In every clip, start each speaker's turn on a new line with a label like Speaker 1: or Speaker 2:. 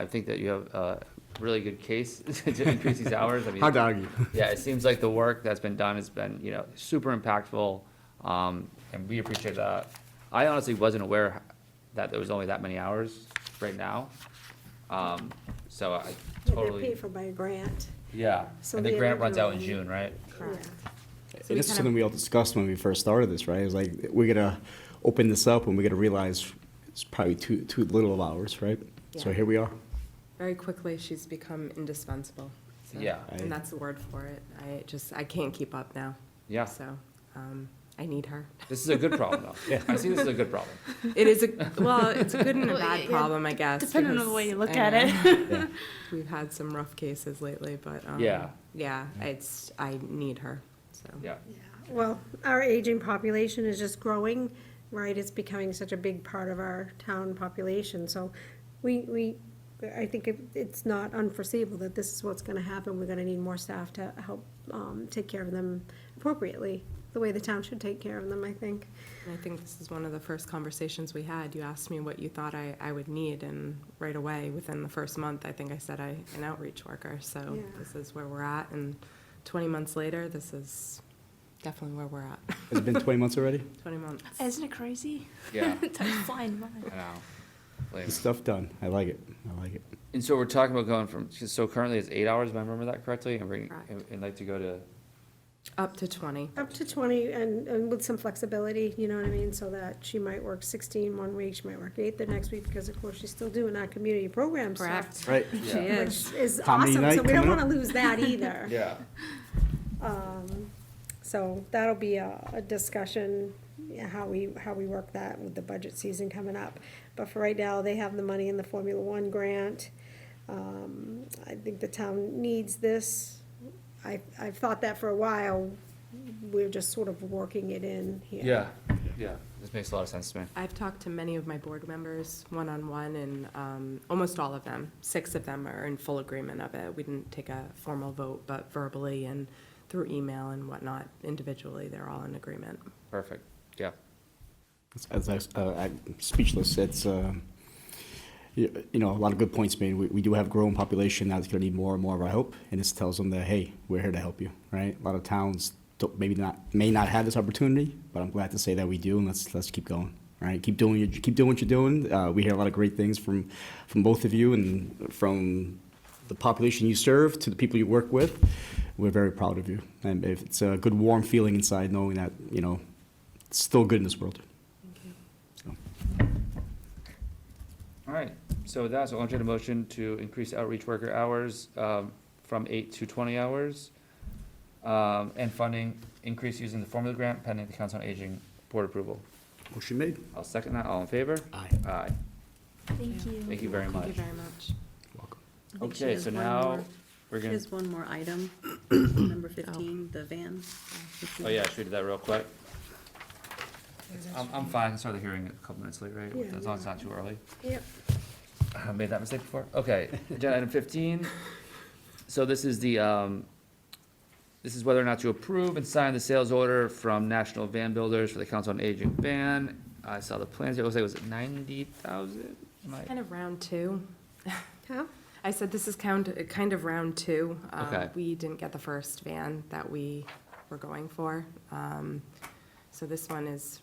Speaker 1: I think that you have a really good case to increase these hours. I mean,
Speaker 2: Hard to argue.
Speaker 1: yeah, it seems like the work that's been done has been, you know, super impactful, um, and we appreciate that. I honestly wasn't aware that there was only that many hours right now, um, so I
Speaker 3: Yeah, They're
Speaker 1: totally,
Speaker 3: paid for by a grant.
Speaker 1: yeah.
Speaker 3: So
Speaker 1: And the
Speaker 3: they
Speaker 1: grant runs out in
Speaker 3: originally-
Speaker 1: June, right?
Speaker 3: Correct.
Speaker 4: So we
Speaker 2: It's
Speaker 4: kind of-
Speaker 2: something we all discussed when we first started this, right? It's like, we're gonna open this up and we're gonna realize it's probably too, too little of ours, right? So
Speaker 4: Yeah.
Speaker 2: here we are.
Speaker 4: Very quickly, she's become indispensable. so-
Speaker 1: Yeah.
Speaker 2: I-
Speaker 4: And that's the word for it. I just, I can't keep up now.
Speaker 1: Yeah.
Speaker 4: So, um, I need her.
Speaker 1: This is a good problem, though. I see this as a good problem.
Speaker 4: It is a, well, it's a good and a
Speaker 5: Well,
Speaker 4: bad
Speaker 5: yeah,
Speaker 4: problem, I guess.
Speaker 5: depending on the
Speaker 4: because
Speaker 5: way you look
Speaker 4: I
Speaker 5: at
Speaker 4: know
Speaker 2: Yeah.
Speaker 4: We've had some rough cases lately, but, um,
Speaker 1: Yeah.
Speaker 4: Yeah, it's, I need her, so.
Speaker 1: Yeah,
Speaker 3: Yeah. Well, our aging population is just growing, right? It's becoming such a big part of our town population, so we, we, I think it- it's not unforeseeable that this is what's gonna happen. We're gonna need more staff to help, um, take care of them appropriately, the way the town should take care of them, I think.
Speaker 4: And I think this is one of the first conversations we had. You asked me what you thought I, I would need, and right away, within the first month, I think I said I, an outreach worker. So
Speaker 3: Yeah.
Speaker 4: this is where we're at, and 20 months later, this is definitely where we're at.
Speaker 2: Has it been twenty months already?
Speaker 4: 20 months.
Speaker 5: Isn't it crazy?
Speaker 1: yeah,
Speaker 5: Time's flying by.
Speaker 1: I know. Lame.
Speaker 2: Good Stuff done. I like it. I like it.
Speaker 1: And so we're talking about going from, so currently it's eight hours, if I remember that correctly, and we're,
Speaker 4: Correct.
Speaker 1: and- and like to go to,
Speaker 4: Up to 20.
Speaker 3: Up to twenty and, and with some flexibility, you know what I mean, so that she might work 16 one week, she might work eight the next week, because of course she's still doing our community program stuff.
Speaker 4: Correct.
Speaker 2: Right.
Speaker 4: She
Speaker 1: Yeah.
Speaker 4: is.
Speaker 3: Which is
Speaker 2: Comedy
Speaker 3: awesome, so
Speaker 2: night
Speaker 3: we don't
Speaker 2: coming up.
Speaker 3: wanna lose that either.
Speaker 1: yeah,
Speaker 3: Um, so that'll be a, a discussion, yeah, how we, how we work that with the budget season coming up. But for right now, they have the money in the Formula One grant. Um, I think the town needs this. I, I've thought that for a while. We're just sort of working it in here.
Speaker 1: yeah, yeah. This makes a lot of sense to me.
Speaker 4: I've talked to many of my board members one-on-one, and um, almost all of them, six of them are in full agreement of it. We didn't take a formal vote, but verbally and through email and whatnot, individually, they're all in agreement.
Speaker 1: Perfect, yeah.
Speaker 2: As I, uh, I'm speechless. It's, um, you you know, a lot of good points made. We, we do have growing population that's going to need more and more of our help, and this tells them that hey, we're here to help you, right? A lot of towns don't, maybe not may not have this opportunity, but I'm glad to say that we do, and let's let's keep going, right? Keep doing your, keep doing what you're doing. Uh, we hear a lot of great things from from both of you and from the population you serve to the people you work with. We're very proud of you, and if it's a good warm feeling inside knowing that you know it's still good in this world. So.
Speaker 1: All right, so with that, so I'll entertain a motion to increase outreach worker hours um, from eight to twenty hours. um, And funding increase using the formula grant pending the Council on Aging Board approval.
Speaker 2: Motion made.
Speaker 1: I'll second that, all in favor?
Speaker 2: Aye.
Speaker 1: Aye.
Speaker 5: Thank you.
Speaker 1: Thank you very
Speaker 4: Thank you
Speaker 1: much.
Speaker 4: very much.
Speaker 2: Welcome.
Speaker 6: I think she
Speaker 1: Okay,
Speaker 6: has
Speaker 1: so
Speaker 6: one
Speaker 1: now,
Speaker 6: more-
Speaker 1: we're
Speaker 6: She
Speaker 1: gonna,
Speaker 6: has one more item, number fifteen, the van.
Speaker 1: oh yeah, should we do that real quick? I'm, I'm fine, start the hearing a couple minutes late, right?
Speaker 3: Yeah.
Speaker 1: As long as it's not too early.
Speaker 3: Yep.
Speaker 1: I made that mistake before. Okay, agenda item fifteen. So this is the, um, this is whether or not to approve and sign the sales order from National Van Builders for the Council on Aging Van. I saw the plans, it was, it was ninety thousand?
Speaker 4: Kind of round two.
Speaker 3: Huh?
Speaker 4: I said this is kind, kind of round two. Um,
Speaker 1: Okay.
Speaker 4: We didn't get the first van that we were going for. Um, So this one is,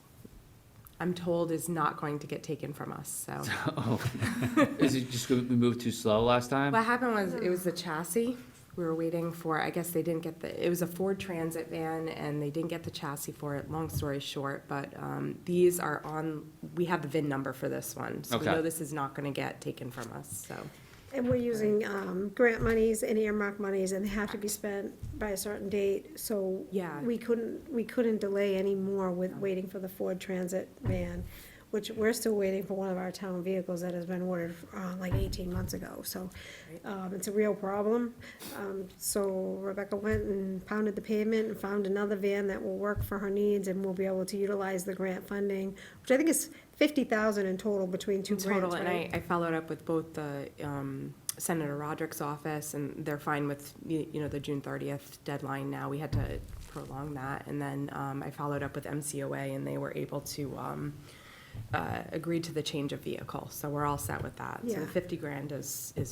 Speaker 4: I'm told, is not going to get taken from us, so.
Speaker 1: Is it just, 'cause we moved too slow last time?
Speaker 4: What happened was, it was the chassis. We were waiting for, I guess they didn't get the, it was a Ford Transit van, and they didn't get the chassis for it, long story short. But um, these are on, we have the VIN number for this one. So we
Speaker 1: Okay.
Speaker 4: know this is not going to get taken from us, so.
Speaker 3: And we're using, um, grant monies and earmark monies, and they have to be spent by a certain date, so.
Speaker 4: Yeah.
Speaker 3: We couldn't, we couldn't delay any more with waiting for the Ford Transit van, which we're still waiting for one of our town vehicles that has been ordered, uh, like eighteen months ago, so. Um, it's a real problem, um, so Rebecca went and pounded the pavement and found another van that will work for her needs, and we'll be able to utilize the grant funding, which I think is fifty thousand in total between two
Speaker 4: In
Speaker 3: grants, right?
Speaker 4: total, and I, I followed up with both the um, Senator Roderick's office, and they're fine with, you you know, the June thirtieth deadline now. We had to prolong that, and then um, I followed up with MCOA, and they were able to um, uh, agree to the change of vehicle, so we're all set with that. So
Speaker 3: Yeah.
Speaker 4: the fifty grand is, is